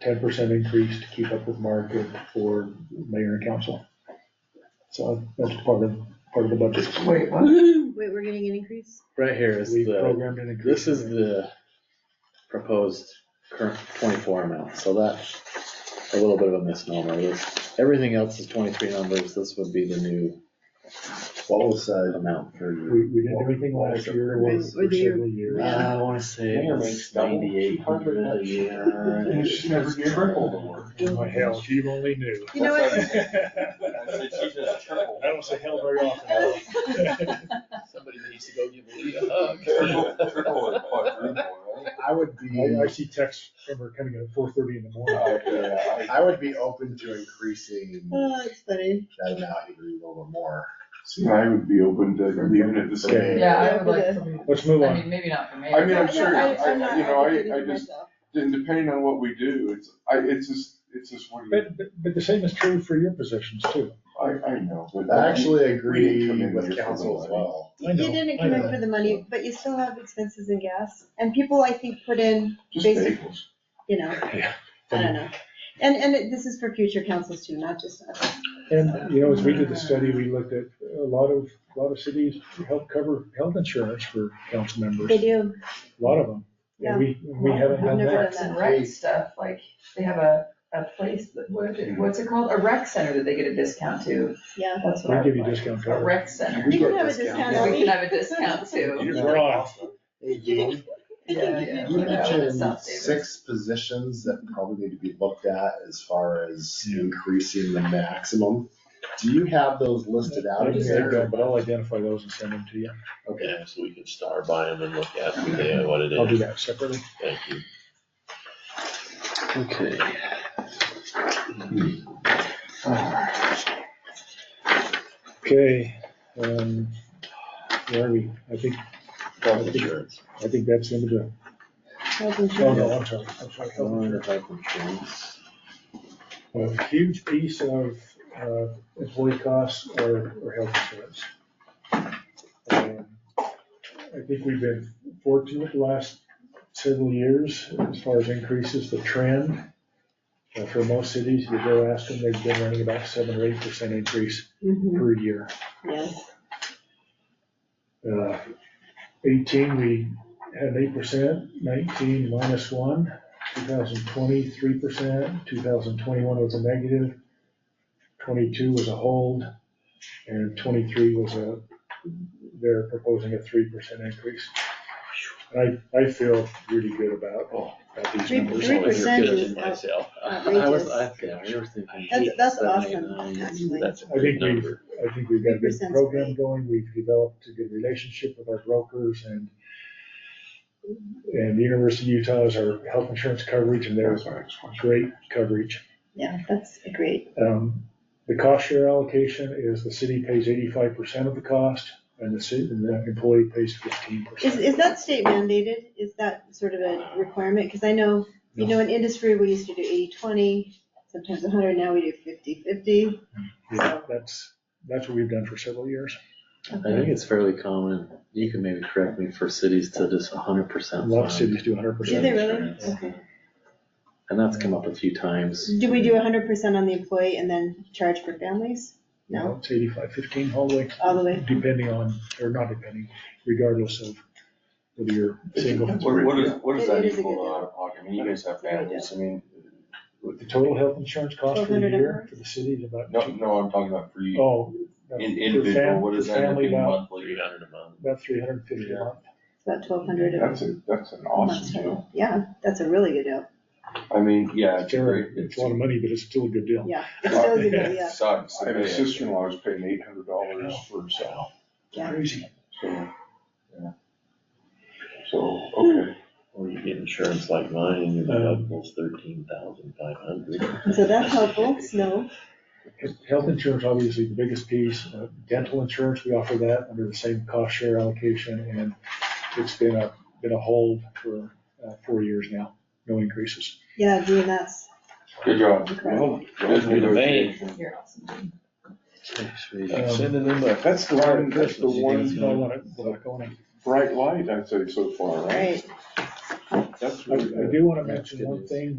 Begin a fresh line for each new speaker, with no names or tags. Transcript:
ten percent increase to keep up with market for mayor and council. So that's part of, part of the budget.
Wait, what?
Wait, we're getting an increase?
Right here is
We
the,
programmed an increase.
this is the proposed current twenty-four amount, so that's a little bit of a misnomer. This, everything else is twenty-three numbers, this would be the new
What was that?
amount for you.
We, we didn't do anything last year, it was
Or the year-
several years.
Uh, I wanna say
Mayor makes double,
ninety-eight hundred a year.
She never tripled the work.
My hell, if you only knew.
You know what?
I don't say hell very
Oh,
often.
Somebody needs to go give Lee a hug.
I would be,
I, I see texts from her coming at four thirty in the morning.
I would be open to increasing that
Oh, that's funny.
amount even a little more.
See, I would be open to leaving it the same.
Okay.
Yeah, I would like some,
Let's move
I
on.
mean, maybe not for me.
I mean,
No,
I'm
no,
sure,
I-
I-
I'm not-
you know, I-
thinking
I
to
just-
myself.
And depending on what we do, it's, I, it's just, it's just what, you-
But, but, but the same is true for your positions too.
I, I know, but.
I actually
We didn't come
agree
in here
with
for
council as
money.
well.
I
You
know,
didn't
I
come in
know.
for the money, but you still have expenses and gas, and people, I think, put in,
Just
basic-
bagels.
you know, I don't know. And, and it- this is for future councils too, not just us.
And, you know, as we did the study, we looked at a lot of, a lot of cities to help cover health insurance for council members,
They
a
do,
lot of them. And we, we haven't done
Never
that.
Parks and rec stuff, like, they have a, a place, that- what is
Hmm.
it, what's it called? A rec center that they get a discount to,
yeah.
that's what
We
I
give
would
you
like.
discount
A
card.
rec center,
We can have a discount
that
on
we can
it.
have a discount to.
Hey, Dean,
Yeah, yeah,
you
whatever,
mentioned
South Davis.
six positions that probably need to be looked at as far as increasing the maximum. Do you have those listed out
I
in
just think that,
here?
but I'll identify those and send them to you.
Okay.
Yeah, so we can star by them and look at what they- what it
I'll do
is.
that separately.
Thank you.
Okay.
Okay, um, where are we? I think,
Health insurance.
I think that's the end of the,
Health
oh,
insurance.
no, I'm sorry, I'm sorry. health insurance.
Under health insurance.
A huge piece of uh, employee costs are are health insurance. Um, I think we've been fortunate the last several years as far as increases, the trend. uh, For most cities, you go ask them, they've been running about seven or eight percent increase
Mhm,
per year.
Yes,
Uh, Eighteen, we had eight percent, nineteen minus one, two thousand twenty, three percent, two thousand twenty-one was a negative, twenty-two was a hold, and twenty-three was a, they're proposing a three percent increase. I, I feel really good about, about these
Three-
numbers.
three percent.
You're kidding
is out-
myself.
I was, I, yeah, we were thinking.
That's- that's
seven, eight,
awesome,
nine.
actually.
That's a
I think
good
we've,
number.
I think we've got a good
3% 's
program
great.
going, we've developed a good relationship with our brokers and and the University of Utah is our health insurance coverage and they're
That's my next question.
great coverage.
yeah, that's great.
Um, the cost share allocation is the city pays eighty-five percent of the cost and the city, and the employee pays fifteen
Is,
percent.
is that state mandated? Is that sort of a requirement? Because I know, you know, in industry, we used to do 80-20, sometimes hundred, now we do 50-50.
Yeah, that's, that's what we've done for several years.
I think it's fairly common, you can maybe correct me, for cities to just hundred
A
percent.
lot of cities do hundred
Do
percent.
they really? Okay.
And that's come up a few times.
Do we do hundred percent on the employee and then charge for families? No,
It's eighty-five, fifteen all the way,
all the way?
depending on, or not depending, regardless of whether you're single.
What, what is, what is
It- it
that
is a
equal
good
out of pocket? I mean, you guys have families, I mean,
The total health insurance cost for the
1,200
year
hours?
for the city is about,
no, no, I'm talking about for you,
oh.
in-
uh, for
individual,
fam-
what
for
is that end up
family
being
about-
monthly?
Three hundred a month.
About three hundred and fifty a
Yeah.
month.
It's about twelve hundred a
That's a, that's an
month.
awesome deal.
Yeah, that's a really good deal.
I mean, yeah, it's a
Terrible.
great.
It's a lot of money, but it's still a good deal.
Yeah, it's still a good deal, yeah.
Sucks. I have a sister-in-law who's paying eight hundred dollars for herself,
Yeah.
Crazy.
so, yeah. So, okay.
Or you get insurance like mine and your
Uh,
deductible's thirteen thousand five hundred.
So that's helpful, snow.
Health insurance, obviously, the biggest piece. Uh, Dental insurance, we offer that under the same cost share allocation, and it's been a, been a hold for uh, four years now, no increases.
Yeah, Gee, and that's
Good job.
incredible.
Good negotiation.
You're awesome.
Um,
Sending them a.
That's the one, that's
That's
the one uh,
not what I- what I call it.
bright light I'd say so far, right?
Right.
That's
I,
really good.
I do wanna
Yeah,
mention
good
one
news.
thing